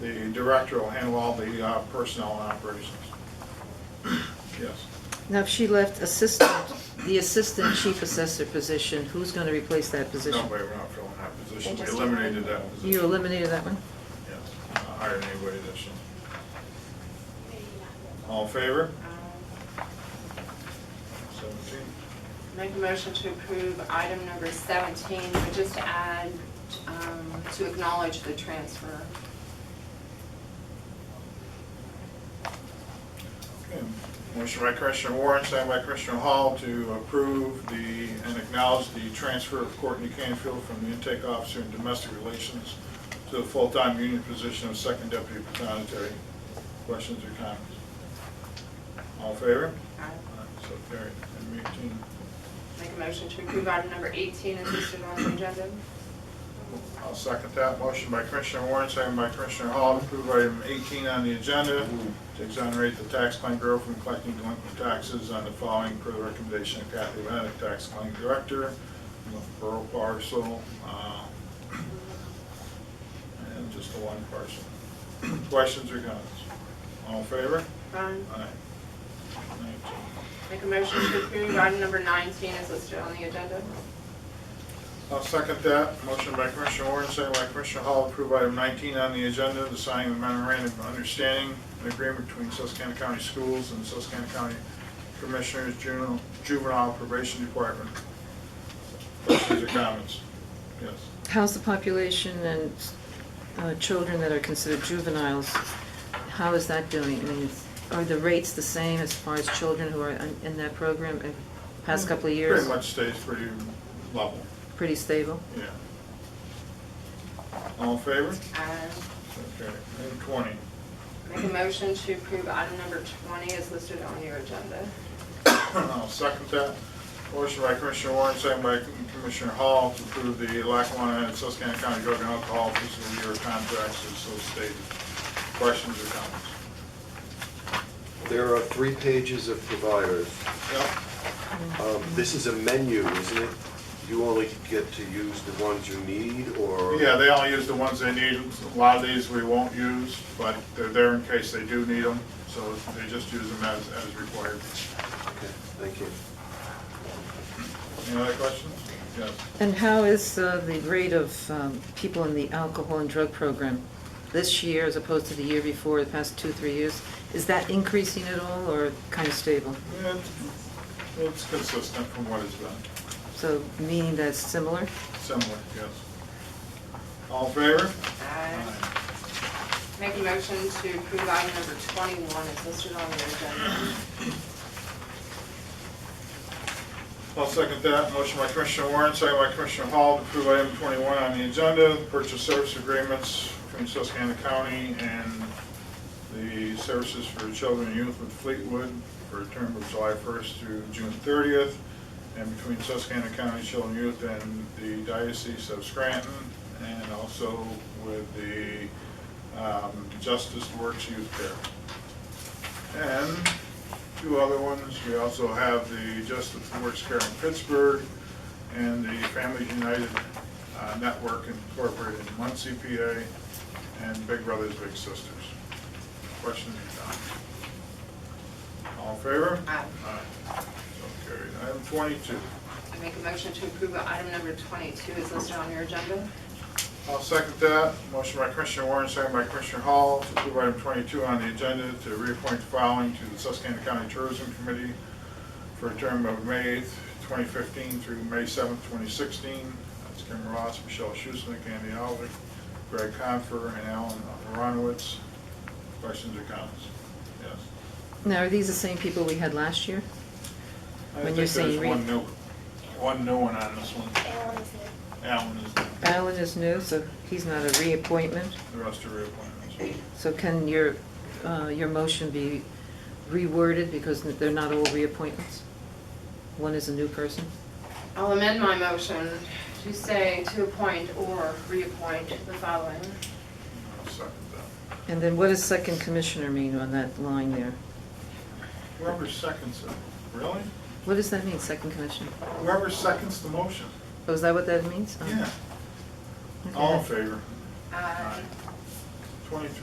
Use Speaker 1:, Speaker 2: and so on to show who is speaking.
Speaker 1: The director will handle all the uh, personnel and operations. Yes.
Speaker 2: Now, if she left assistant, the assistant chief assessor position, who's going to replace that
Speaker 1: No,
Speaker 2: position?
Speaker 1: we we're not filling that position.
Speaker 3: They
Speaker 1: We
Speaker 3: just-
Speaker 1: eliminated that position.
Speaker 2: You eliminated that one?
Speaker 1: Yes, uh, hired anyway this year. All in favor?
Speaker 3: Um,
Speaker 1: Seventeen.
Speaker 3: Make a motion to approve item number 17, but just to add, um, to acknowledge the transfer.
Speaker 1: Okay. Motion by Commissioner Warren, second by Commissioner Hall to approve the, and acknowledge the transfer of Courtney Canfield from the intake officer in domestic relations to the full-time union position of second deputy patonetary. Questions or comments? All in favor?
Speaker 3: Aye.
Speaker 1: Aye, So carried. Item eighteen.
Speaker 3: Make a motion to approve item number 18 is listed on the agenda.
Speaker 1: I'll second that. Motion by Commissioner Warren, second by Commissioner Hall, to approve item 18 on the agenda, to exonerate the tax claim bureau from collecting delinquent taxes on the following per the recommendation of Kathy Lennick, tax claim director, borough parcel, uh, and just the one parcel. Questions or comments? All in favor?
Speaker 3: Ron,
Speaker 1: Aye. 19.
Speaker 3: Make a motion to approve item number 19 is listed on the agenda.
Speaker 1: I'll second that. Motion by Commissioner Warren, second by Commissioner Hall, approve item 19 on the agenda, the signing of memorandum of understanding and agreement between Susquehanna County Schools and Susquehanna County Commissioners Juvenile- Juvenile Probation Department. Questions or comments? Yes.
Speaker 2: How's the population and uh, children that are considered juveniles? How is that doing? I mean, it's- are the rates the same as far as children who are in- in that program in the past couple of years?
Speaker 1: Pretty much stays pretty level,
Speaker 2: Pretty stable?
Speaker 1: yeah. All in favor?
Speaker 3: Aye.
Speaker 1: Okay. Item 20.
Speaker 3: Make a motion to approve item number 20 is listed on your agenda.
Speaker 1: I'll second that. Motion by Commissioner Warren, second by Commissioner Hall to approve the Lackawanna and Susquehanna County Drug and Alcohol Fiscal Year Contracts as so stated. Questions or comments?
Speaker 4: There are three pages of providers.
Speaker 1: Yep,
Speaker 4: Um, This is a menu, isn't it? You only get to use the ones you need, or?
Speaker 1: yeah, they only use the ones they need. A lot of these we won't use, but they're there in case they do need them, so they just use them as, as required.
Speaker 4: Okay, thank you.
Speaker 1: Any other questions? Yes.
Speaker 2: And how is uh, the rate of um, people in the alcohol and drug program this year as opposed to the year before, the past two, three years? Is that increasing at all or kind of stable?
Speaker 1: Yeah, It's it's consistent from what it's been,
Speaker 2: So meaning that's similar?
Speaker 1: similar, yes. All in favor?
Speaker 3: Aye. Make a motion to approve item number 21 is listed on your agenda.
Speaker 1: I'll second that. Motion by Commissioner Warren, second by Commissioner Hall to approve item 21 on the agenda, purchase service agreements between Susquehanna County and the Services for Children and Youth with Fleetwood for a term of July 1st through June 30th, and between Susquehanna County Children and Youth and the Diocese of Scranton, and also with the um, Justice Works Youth Care. And two other ones, we also have the Justice Works Care in Pittsburgh and the Families United uh, Network Incorporated in Muncie, PA, and Big Brothers Big Sisters. Questions or comments? All in favor?
Speaker 3: Aye.
Speaker 1: Aye. So carried. Item 22.
Speaker 3: I make a motion to approve item number 22 is listed on your agenda.
Speaker 1: I'll second that. Motion by Commissioner Warren, second by Commissioner Hall to approve item 22 on the agenda to reappoint the following to the Susquehanna County Tourism Committee for a term of May 8th, 2015 through May 7th, 2016. That's Kim Ross, Michelle Schusnick, Andy Oliver, Greg Confer, and Alan Aronowitz. Questions or comments? Yes.
Speaker 2: Now, are these the same people we had last year?
Speaker 1: I
Speaker 2: When
Speaker 1: think
Speaker 2: you're
Speaker 1: there's
Speaker 2: saying re-
Speaker 1: one new, one new one on this one. Alan is the
Speaker 2: Alan is new, so he's not a reappointment.
Speaker 1: the rest are reappointments.
Speaker 2: So can your, uh, your motion be reworded because they're not all reappointments? One is a new person?
Speaker 3: I'll amend my motion to say to appoint or reappoint the following.
Speaker 1: I'll second that.
Speaker 2: And then what does second commissioner mean on that line there?
Speaker 1: Whoever seconds it, really?
Speaker 2: What does that mean, second commissioner?
Speaker 1: Whoever seconds the motion.
Speaker 2: Oh, is that what that means? Oh.
Speaker 1: Yeah.
Speaker 2: Okay.
Speaker 1: All in favor?
Speaker 3: Aye.
Speaker 1: Twenty-three.